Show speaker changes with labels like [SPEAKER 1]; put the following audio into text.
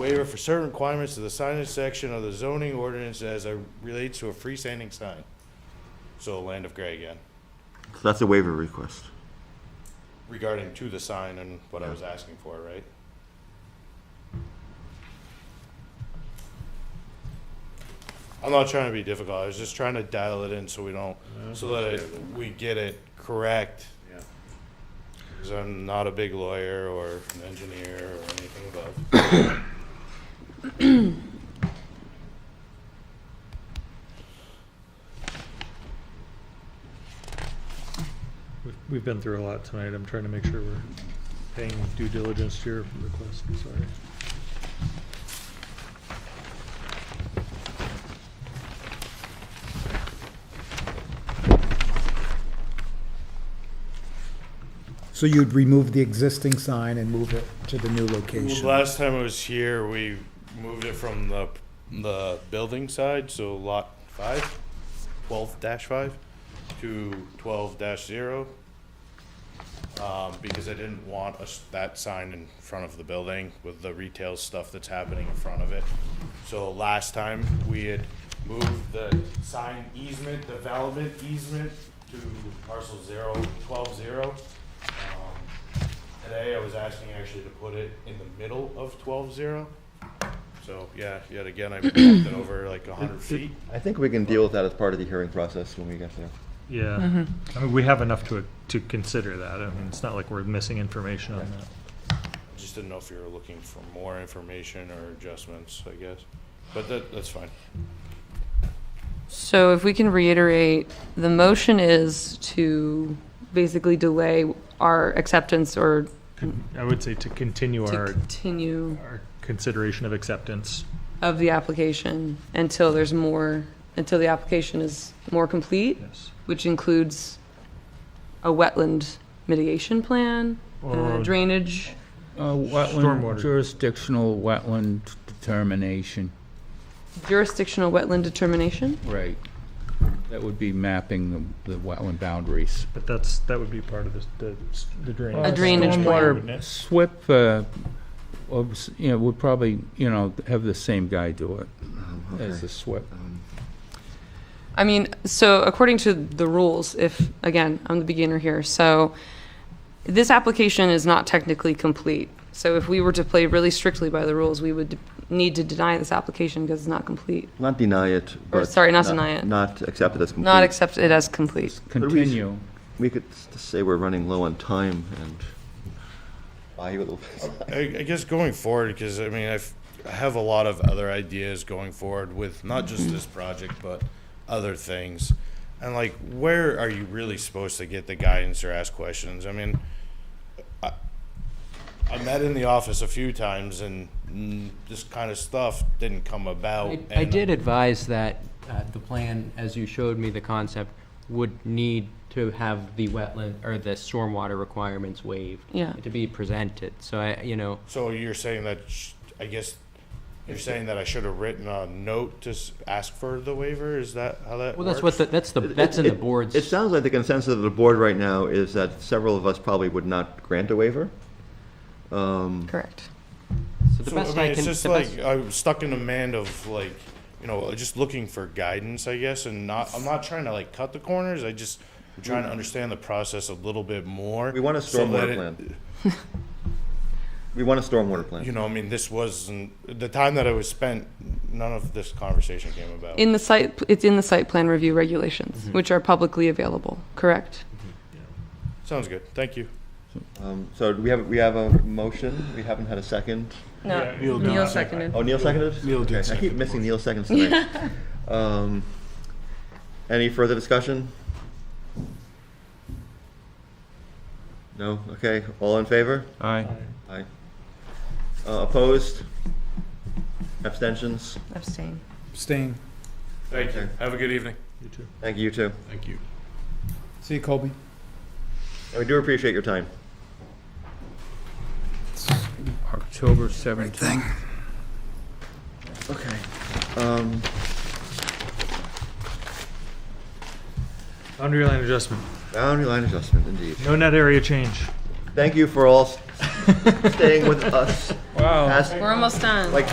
[SPEAKER 1] waiver for certain requirements to the signage section of the zoning ordinance as it relates to a freestanding sign. So Land of Gray again,
[SPEAKER 2] So that's a waiver request.
[SPEAKER 1] regarding to the sign and what I was asking for, right? I'm not trying to be difficult, I was just trying to dial it in so we don't, so that it- we get it correct.
[SPEAKER 3] Yeah.
[SPEAKER 1] Because I'm not a big lawyer or an engineer or anything above.
[SPEAKER 4] We've- We've been through a lot tonight. I'm trying to make sure we're paying due diligence to your request. I'm Sorry.
[SPEAKER 5] So you'd remove the existing sign and move it to the new location?
[SPEAKER 1] Last time I was here, we moved it from the, the building side, so lot five, twelve dash five, to twelve dash zero. Um, because I didn't want us, that sign in front of the building with the retail stuff that's happening in front of it. So last time, we had moved the sign easement, development easement to parcel zero, twelve zero. Um, Today, I was asking actually to put it in the middle of twelve zero. So, yeah, yet again, I bumped it over like a hundred feet.
[SPEAKER 2] I think we can deal with that as part of the hearing process when we get there.
[SPEAKER 4] Yeah.
[SPEAKER 6] Mm-hmm.
[SPEAKER 4] I mean, we have enough to, to consider that. I mean, it's not like we're missing information on that.
[SPEAKER 1] I Just didn't know if you were looking for more information or adjustments, I guess. But that, that's fine.
[SPEAKER 6] So if we can reiterate, the motion is to basically delay our acceptance or
[SPEAKER 4] I would say to continue
[SPEAKER 6] to
[SPEAKER 4] our,
[SPEAKER 6] continue
[SPEAKER 4] our consideration of acceptance.
[SPEAKER 6] of the application until there's more, until the application is more complete,
[SPEAKER 4] Yes.
[SPEAKER 6] which includes a wetland mitigation plan, uh,
[SPEAKER 4] Or-
[SPEAKER 6] drainage.
[SPEAKER 7] Uh, wetland,
[SPEAKER 4] Stormwater.
[SPEAKER 7] jurisdictional wetland determination,
[SPEAKER 6] Jurisdictional wetland determination?
[SPEAKER 7] right. That would be mapping the, the wetland boundaries.
[SPEAKER 4] But that's, that would be part of the, the, the drainage.
[SPEAKER 6] A drainage plan.
[SPEAKER 4] Stormwater,
[SPEAKER 6] Stormwater-
[SPEAKER 4] wouldn't it?
[SPEAKER 7] SWIP, uh, obs- you know, would probably, you know, have the same guy do it as the SWIP.
[SPEAKER 6] I mean, so according to the rules, if, again, I'm the beginner here, so this application is not technically complete. So if we were to play really strictly by the rules, we would d- need to deny this application because it's not complete.
[SPEAKER 2] Not deny it,
[SPEAKER 6] Or,
[SPEAKER 2] but.
[SPEAKER 6] sorry, not deny it.
[SPEAKER 2] Not accept it as complete.
[SPEAKER 6] Not accept it as complete.
[SPEAKER 7] Continue.
[SPEAKER 2] We could s- say we're running low on time and buy you a little.
[SPEAKER 1] I, I guess going forward, because I mean, I've, I have a lot of other ideas going forward with not just this project, but other things. And like, where are you really supposed to get the guidance or ask questions? I mean, I, I met in the office a few times and mm, this kind of stuff didn't come about.
[SPEAKER 8] I- I
[SPEAKER 1] and-
[SPEAKER 8] did advise that uh, the plan, as you showed me the concept, would need to have the wetland, or the stormwater requirements waived.
[SPEAKER 6] Yeah.
[SPEAKER 8] To be presented, so I, you know,
[SPEAKER 1] So you're saying that, sh- I guess, you're saying that I should have written a note to s- ask for the waiver? Is that how that works?
[SPEAKER 8] well, that's what, the- that's the,
[SPEAKER 2] It-
[SPEAKER 8] that's in
[SPEAKER 2] it-
[SPEAKER 8] the board's.
[SPEAKER 2] It sounds like the consensus of the board right now is that several of us probably would not grant a waiver.
[SPEAKER 6] Correct.
[SPEAKER 8] so the
[SPEAKER 1] So, I
[SPEAKER 8] best
[SPEAKER 1] mean,
[SPEAKER 8] can-
[SPEAKER 1] it's just
[SPEAKER 8] the best-
[SPEAKER 1] like I'm stuck in a man of like, you know, just looking for guidance, I guess, and not. I'm not trying to like cut the corners. I just I'm trying
[SPEAKER 8] Mm.
[SPEAKER 1] to understand the process a little bit more.
[SPEAKER 2] We want a
[SPEAKER 1] so that
[SPEAKER 2] stormwater
[SPEAKER 1] it-
[SPEAKER 2] plan. We want a stormwater plan.
[SPEAKER 1] You know, I mean, this wasn't the time that I was spent. None of this conversation came about.
[SPEAKER 6] In the site, it's in the site plan review regulations, which are publicly available, correct?
[SPEAKER 1] Sounds good. Thank you.
[SPEAKER 2] Um, So do we have, we have a motion, we haven't had a second.
[SPEAKER 6] No,
[SPEAKER 4] Neil
[SPEAKER 6] Neil seconded.
[SPEAKER 2] Oh, Neil seconded? Neil did I keep missing Neil seconds tonight. Um, Any further discussion? No? Okay, all in favor?
[SPEAKER 7] Aye.
[SPEAKER 2] Aye. Uh, Opposed? Abstentions?
[SPEAKER 6] Abstain.
[SPEAKER 5] Abstain.
[SPEAKER 1] Thank
[SPEAKER 2] you.
[SPEAKER 1] Have a good evening.
[SPEAKER 4] You too.
[SPEAKER 2] Thank you, you too.
[SPEAKER 5] See you, Colby.
[SPEAKER 2] And we do appreciate your time.
[SPEAKER 7] October 17th.
[SPEAKER 2] Okay. Um,
[SPEAKER 4] Boundary line adjustment.
[SPEAKER 2] boundary line adjustment, indeed.
[SPEAKER 4] No net area change.
[SPEAKER 2] Thank you for all s- staying with us
[SPEAKER 7] Wow.
[SPEAKER 2] past
[SPEAKER 6] We're almost done.
[SPEAKER 2] Like,